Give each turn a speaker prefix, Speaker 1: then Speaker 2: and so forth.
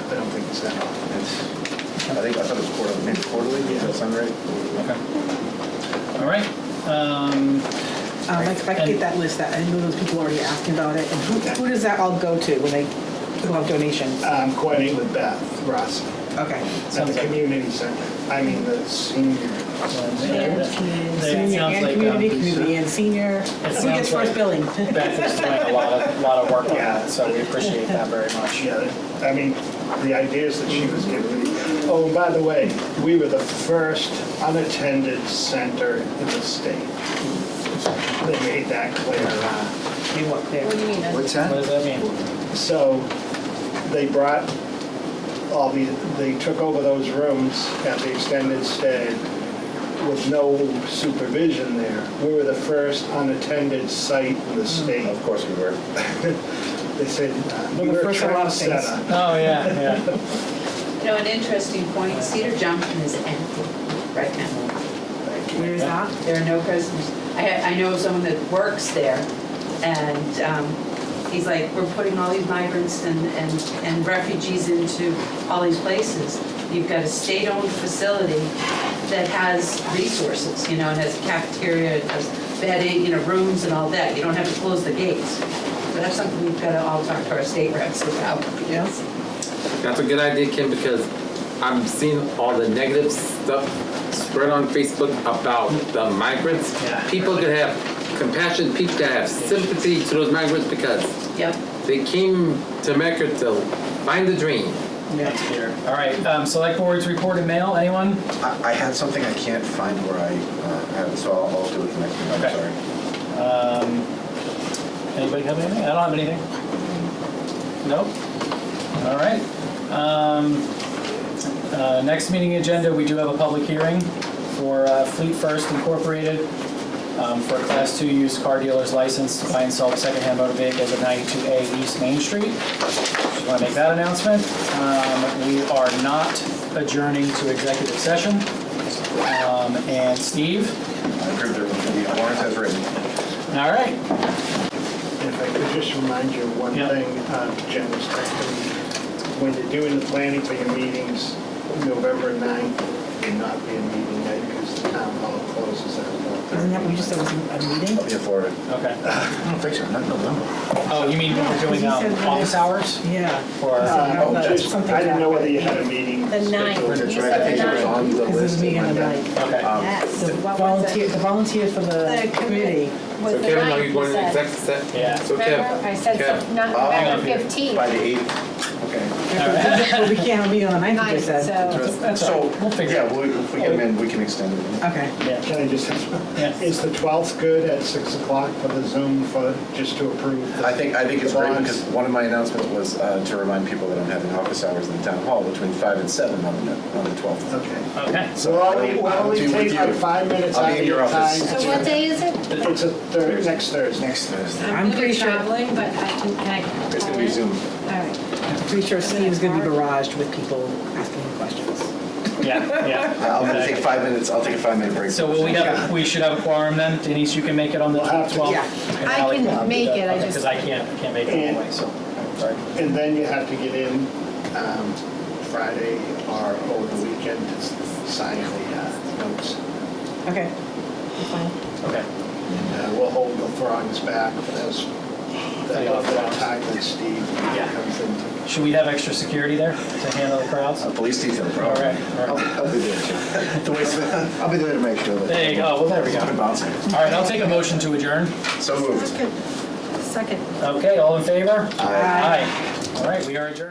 Speaker 1: so it's, I think, I thought it was quarterly, maybe quarterly, does that sound right?
Speaker 2: Okay. All right. Um,
Speaker 3: Um, I I can get that list, that, I know those people already asking about it, and who, who does that all go to when they, who have donations?
Speaker 4: I'm coordinating Um, with Beth Ross
Speaker 3: Okay,
Speaker 4: at the community center. I mean, the senior.
Speaker 2: It
Speaker 3: senior
Speaker 2: sounds
Speaker 3: and
Speaker 2: like
Speaker 3: community,
Speaker 2: um,
Speaker 3: community and senior, who
Speaker 2: sounds
Speaker 3: gets
Speaker 2: like-
Speaker 3: first billing?
Speaker 2: Beth is doing a lot of, lot of work on
Speaker 4: Yeah.
Speaker 2: that, so we appreciate that very much.
Speaker 4: Yeah, I mean, the ideas that she was giving me. Oh, by the way, we were the first unattended center in the state. They made that clear.
Speaker 3: They work there.
Speaker 5: What do you mean?
Speaker 1: What's
Speaker 2: What
Speaker 1: that?
Speaker 2: does that mean?
Speaker 4: So they brought all the, they took over those rooms at the extended stay with no supervision there. We were the first unattended site in the state.
Speaker 1: Hmm. Of course we were.
Speaker 4: They said, uh,
Speaker 3: We're the
Speaker 4: you're a
Speaker 3: first in a lot of things."
Speaker 4: trendsetter.
Speaker 2: Oh, yeah, yeah.
Speaker 5: You know, an interesting point, Cedar Junction is empty right now.
Speaker 3: Where is that?
Speaker 5: There are no prisoners. I, I know someone that works there, and um, he's like, we're putting all these migrants and, and and refugees into all these places. You've got a state-owned facility that has resources, you know, it has a cafeteria, it has bedding, you know, rooms and all that. You don't have to close the gates. So that's something we've got to all talk to our state reps about.
Speaker 3: Yeah.
Speaker 6: That's a good idea, Kim, because I'm seeing all the negative stuff spread on Facebook about the migrants.
Speaker 2: Yeah.
Speaker 6: People that have compassion, people that have sympathy to those migrants because
Speaker 5: Yep.
Speaker 6: they came to America to find the dream.
Speaker 2: That's here. All right, um, select boards report and mail, anyone?
Speaker 1: I, I had something I can't find where I, uh, have it, so I'll, I'll do it the next time, I'm
Speaker 2: Okay.
Speaker 1: sorry.
Speaker 2: Um, Anybody have anything? I don't have anything. Nope. All right. Um, uh, Next meeting agenda, we do have a public hearing for uh, Fleet First Incorporated um, for a Class 2 used car dealer's license to buy and sell secondhand motor vehicles at 92A East Main Street. Just want to make that announcement. Um, We are not adjourning to executive session. Um, And Steve?
Speaker 1: I approved it, the warrant as written.
Speaker 2: All right.
Speaker 4: If I could just remind you of one
Speaker 2: Yeah.
Speaker 4: thing, uh, Jen was texting me. When you're doing the planning for your meetings, November 9th will not be a meeting night because the town hall closes at 1:30.
Speaker 3: Isn't that, what you just said was a meeting?
Speaker 1: I'll be in Florida.
Speaker 2: Okay.
Speaker 1: I don't think so, not in November.
Speaker 2: Oh, you mean when we're doing
Speaker 3: Yeah, 'cause he
Speaker 2: um,
Speaker 3: said-
Speaker 2: office hours?
Speaker 3: Yeah.
Speaker 2: Or,
Speaker 4: Uh,
Speaker 3: Oh,
Speaker 4: just-
Speaker 3: something
Speaker 4: I didn't know
Speaker 3: happened.
Speaker 4: whether you had a meeting.
Speaker 7: The ninth.
Speaker 4: scheduled.
Speaker 7: You
Speaker 1: That's right,
Speaker 7: said
Speaker 1: I think it was
Speaker 7: nine.
Speaker 1: on the
Speaker 3: Because this
Speaker 1: list.
Speaker 3: is meeting on the
Speaker 1: Yeah.
Speaker 3: night.
Speaker 2: okay,
Speaker 1: Um,
Speaker 7: Yes.
Speaker 3: The
Speaker 7: What was
Speaker 3: volunteer,
Speaker 7: it?
Speaker 3: the volunteer for the
Speaker 7: The
Speaker 3: committee.
Speaker 7: committee. Was
Speaker 6: So
Speaker 7: the
Speaker 6: Kevin, are
Speaker 7: ninth,
Speaker 6: you going
Speaker 7: you
Speaker 6: to
Speaker 7: said.
Speaker 6: executive session?
Speaker 2: yeah.
Speaker 6: So Kev,
Speaker 7: Remember? I said,
Speaker 6: Kev. Oh,
Speaker 7: not
Speaker 1: Hang
Speaker 7: November
Speaker 2: on, Peter.
Speaker 7: 15th.
Speaker 1: By the 8th, okay.
Speaker 3: But we can't have a meeting on the ninth, you
Speaker 7: Ninth,
Speaker 3: just said.
Speaker 7: so.
Speaker 2: That's all right. We'll figure it
Speaker 1: Yeah, we- if we get them in, we can extend it.
Speaker 3: Okay.
Speaker 2: Yeah.
Speaker 4: Can I just,
Speaker 2: Yeah.
Speaker 4: is the 12th good at 6 o'clock for the Zoom for, just to approve? the-
Speaker 1: I think, I think it's
Speaker 4: the
Speaker 1: great
Speaker 4: bonds?
Speaker 1: because one of my announcements was uh, to remind people that I'm having office hours in the town hall between five and seven on the, on the 12th.
Speaker 4: Okay.
Speaker 2: Okay.
Speaker 4: So why don't we- why
Speaker 1: I'll
Speaker 4: don't we
Speaker 1: do with
Speaker 4: take like
Speaker 1: you.
Speaker 4: five minutes
Speaker 1: I'll
Speaker 4: out
Speaker 1: be in
Speaker 4: of
Speaker 1: your
Speaker 4: your time?
Speaker 1: office.
Speaker 7: So what day is it?
Speaker 4: It's a Thursday, next Thursday.
Speaker 1: Next Thursday.
Speaker 3: I'm
Speaker 7: gonna be
Speaker 3: pretty sure-
Speaker 7: Traveling, but I can, can I call
Speaker 1: It's gonna be
Speaker 7: in?
Speaker 1: Zoom.
Speaker 7: All right.
Speaker 3: Pretty sure Steve's gonna be barraged with people asking him questions.
Speaker 2: Yeah, yeah.
Speaker 1: I'm gonna take five minutes, I'll take a five minute break.
Speaker 2: So will we have, we should have a quorum then? Denise, you can make it on the
Speaker 4: We'll have to.
Speaker 2: 12th?
Speaker 3: Yeah.
Speaker 2: And
Speaker 7: I
Speaker 2: Ally
Speaker 7: can make
Speaker 2: do
Speaker 7: it, I
Speaker 2: that. Okay,
Speaker 7: just-
Speaker 2: Because I can't, I can't make it anyway, so. Sorry.
Speaker 4: And then you have to get in um, Friday or over the weekend to s- sign the uh, notes.
Speaker 3: Okay. Fine.
Speaker 2: Okay.
Speaker 4: And uh, we'll hold the throngs back for those, that
Speaker 2: Yeah.
Speaker 4: that time that Steve
Speaker 2: Yeah.
Speaker 4: comes in.
Speaker 2: Should we have extra security there to handle the crowds?
Speaker 1: A police detail, bro.
Speaker 2: All right, all
Speaker 1: I'll,
Speaker 2: right.
Speaker 1: I'll be there too. The way, I'll be there to make sure that.
Speaker 2: There you go, well, there we
Speaker 1: It's been
Speaker 2: go.
Speaker 1: bouncing.
Speaker 2: All right, I'll take a motion to adjourn.
Speaker 1: So moved.
Speaker 7: Second.
Speaker 2: Okay, all in favor?
Speaker 1: Aye.
Speaker 2: All right, we are adjourned.